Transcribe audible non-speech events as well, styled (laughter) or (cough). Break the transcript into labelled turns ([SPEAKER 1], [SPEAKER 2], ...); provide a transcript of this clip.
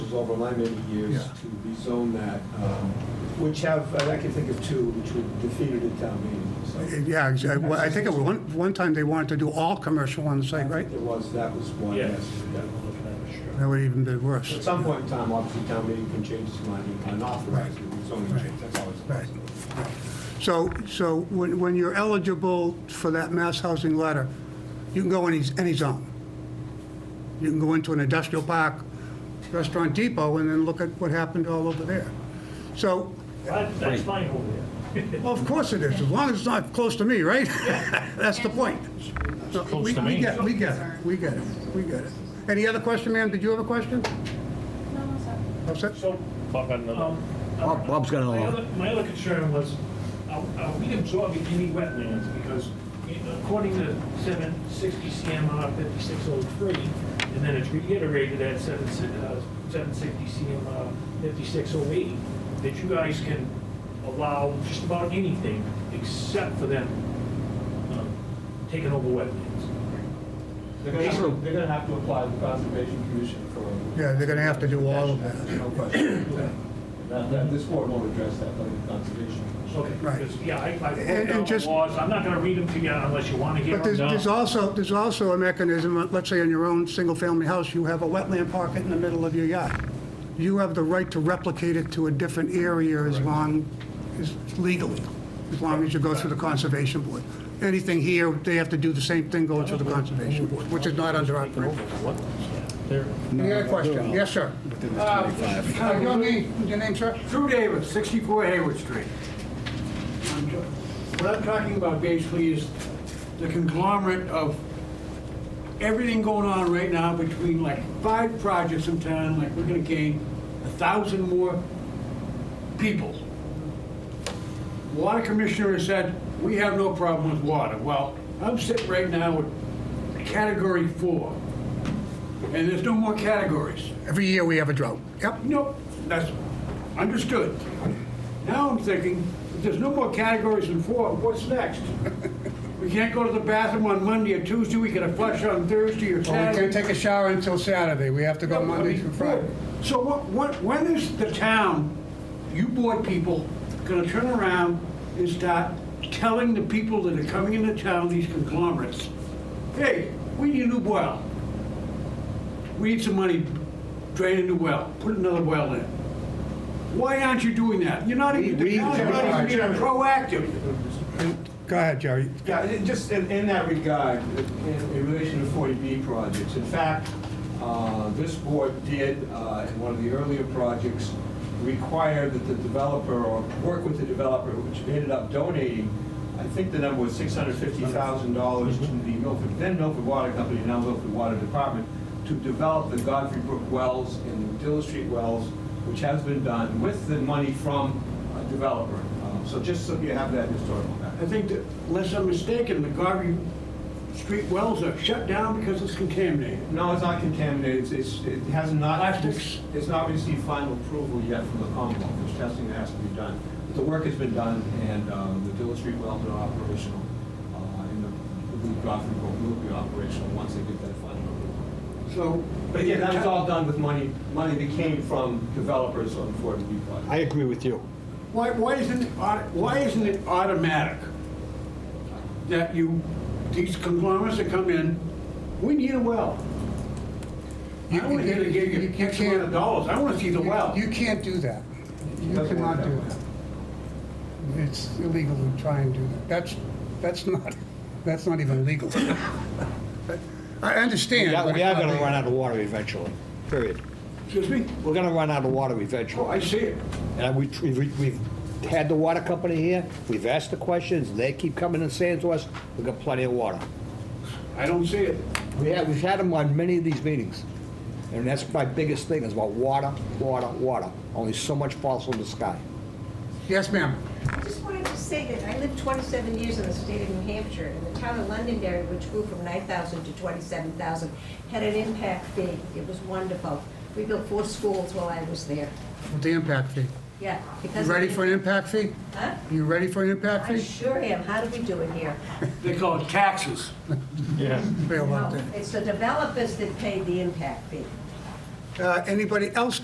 [SPEAKER 1] was over my many years
[SPEAKER 2] Yeah.
[SPEAKER 1] to rezone that, um, which have, and I can think of two, which were defeated at town meeting, so.
[SPEAKER 2] Yeah, exactly. Well, I think at one, one time they wanted to do all commercial on the site, right?
[SPEAKER 1] There was, that was one,
[SPEAKER 3] Yes.
[SPEAKER 1] yes.
[SPEAKER 3] yeah, I'm looking at it, sure.
[SPEAKER 2] That would even be worse.
[SPEAKER 1] At some point in time, obviously, town meeting can change its mind and authorize the zoning change, that's always a
[SPEAKER 2] Right.
[SPEAKER 1] possibility.
[SPEAKER 2] So, so when, when you're eligible for that mass housing letter, you can go in any, any zone. You can go into an industrial park, Restaurant Depot, and then look at what happened all over there. So,
[SPEAKER 3] That- That's mine over there.
[SPEAKER 2] well, of course it is, as long as it's not close to me, right? (laughs) That's the point. So we-
[SPEAKER 3] to
[SPEAKER 2] We
[SPEAKER 3] me.
[SPEAKER 2] get, we get it, we get it, we get it. Any other question, ma'am? Did you have a question?
[SPEAKER 4] No, no, sorry.
[SPEAKER 2] All set?
[SPEAKER 3] So, um,
[SPEAKER 5] Bob- Bob's got
[SPEAKER 3] my
[SPEAKER 5] another one.
[SPEAKER 3] other- My other concern was, are are we absorbing any wetlands? Because you know, according to seven sixty CMR fifty-six oh three, and then it's reiterated at seven uh, sixty CMR fifty-six oh eight, that you guys can allow just about anything except for them um, taking over wetlands.
[SPEAKER 6] They're gonna, have to- they're gonna have to apply to the Conservation Commission for,
[SPEAKER 2] Yeah, they're gonna have to do all of that.
[SPEAKER 6] no question. Now, that- this board won't address that, but the Conservation Commission.
[SPEAKER 3] Okay,
[SPEAKER 2] Right.
[SPEAKER 3] because, yeah, I, I
[SPEAKER 2] And-
[SPEAKER 3] wrote
[SPEAKER 2] and
[SPEAKER 3] down the
[SPEAKER 2] just-
[SPEAKER 3] laws, I'm not gonna read them to you unless you wanna hear
[SPEAKER 2] But
[SPEAKER 3] them.
[SPEAKER 2] there's, there's
[SPEAKER 3] No.
[SPEAKER 2] also, there's also a mechanism, uh, let's say in your own single-family house, you have a wetland pocket in the middle of your yard. You have the right to replicate it to a different area as long, as legally, as long as you go through the Conservation Board. Anything here, they have to do the same thing going through the Conservation Board, which is not under our purview. Any other question? Yes, sir. Uh, Your name, your name, sir?
[SPEAKER 7] Drew Davis, 64 Hayward Street. I'm t- What I'm talking about basically is the conglomerate of everything going on right now between like five projects in town, like we're gonna gain a thousand more people. Water Commissioner has said, we have no problem with water. Well, I'm sitting right now with category four, and there's no more categories.
[SPEAKER 2] Every year we have a drought. Yep.
[SPEAKER 7] Nope, that's understood. Now I'm thinking, if there's no more categories than four, what's next? (laughs) We can't go to the bathroom on Monday or Tuesday, we get a flush on Thursday or
[SPEAKER 2] Well, we
[SPEAKER 7] Saturday.
[SPEAKER 2] can't take a shower until Saturday. We have to go Monday through Friday.
[SPEAKER 7] So what, what, when is the town, you board people, gonna turn around and start telling the people that are coming into town, these conglomerates, hey, we need a new well. We need some money, drain a new well, put another well in. Why aren't you doing that? You're not even, the
[SPEAKER 2] We-
[SPEAKER 7] town's not even being proactive.
[SPEAKER 2] Go ahead, Jerry.
[SPEAKER 1] Yeah, it- just in, in that regard, in, in relation to 40B projects, in fact, uh, this board did, uh, in one of the earlier projects, require that the developer, or work with the developer, which ended up donating, I think the number was $650,000 to the Milford, then Milford Water Company, now Milford Water Department, to develop the Godfrey Brook wells and the Dill Street wells, which has been done with the money from a developer. Uh, So just so you have that historical background.
[SPEAKER 7] I think that, unless I'm mistaken, the Garvey Street wells are shut down because it's contaminated.
[SPEAKER 1] No, it's not contaminated, It's- it's, it has not.
[SPEAKER 7] Plastics?
[SPEAKER 1] It's not received final approval yet from the Commonwealth, there's testing that has to be done. But the work has been done, and uh, the Dill Street wells are operational, uh, and the Blue Godfrey Brook will be operational once they get that final approval.
[SPEAKER 7] So.
[SPEAKER 1] But again, that was all done with money, money that came from developers on 40B projects.
[SPEAKER 5] I agree with you.
[SPEAKER 7] Why, why isn't it, au- why isn't it automatic that you, these conglomerates that come in, we need a well. I
[SPEAKER 2] You-
[SPEAKER 7] only gonna give
[SPEAKER 2] you-
[SPEAKER 7] you
[SPEAKER 2] you
[SPEAKER 7] X amount
[SPEAKER 2] can't-
[SPEAKER 7] of dollars, I wanna see the well.
[SPEAKER 2] You can't do that. You
[SPEAKER 1] Doesn't work
[SPEAKER 2] cannot
[SPEAKER 1] that
[SPEAKER 2] do
[SPEAKER 1] way.
[SPEAKER 2] that. It's illegal to try and do that. That's, that's not, that's not even legal. I understand.
[SPEAKER 5] Yeah,
[SPEAKER 2] but
[SPEAKER 5] we
[SPEAKER 2] it's
[SPEAKER 5] are
[SPEAKER 2] not
[SPEAKER 5] gonna
[SPEAKER 2] legal.
[SPEAKER 5] run out of water eventually, period.
[SPEAKER 7] Excuse me?
[SPEAKER 5] We're gonna run out of water
[SPEAKER 7] Oh,
[SPEAKER 5] eventually.
[SPEAKER 7] I see it.
[SPEAKER 5] And we, we- we've had the water company here, we've asked the questions, and they keep coming and saying to us, we've got plenty of water.
[SPEAKER 7] I don't see it.
[SPEAKER 5] We have, we've had them on many of these meetings, and that's my biggest thing, is about water, water, water. Only so much falls from the sky.
[SPEAKER 2] Yes, ma'am.
[SPEAKER 8] I just wanted to say that I lived 27 years in the state of New Hampshire, and the town of Londonderry, which grew from 9,000 to 27,000, had an impact fee. It was wonderful. We built four schools while I was there.
[SPEAKER 2] With The impact fee.
[SPEAKER 8] Yeah,
[SPEAKER 2] You
[SPEAKER 8] because.
[SPEAKER 2] ready for an impact fee?
[SPEAKER 8] Huh?
[SPEAKER 2] You ready for an impact
[SPEAKER 8] I
[SPEAKER 2] fee?
[SPEAKER 8] sure am. How do we do it here?
[SPEAKER 7] They call it taxes.
[SPEAKER 2] Bail out
[SPEAKER 8] No, It's the developers that paid the impact fee.
[SPEAKER 2] there. Uh, Anybody else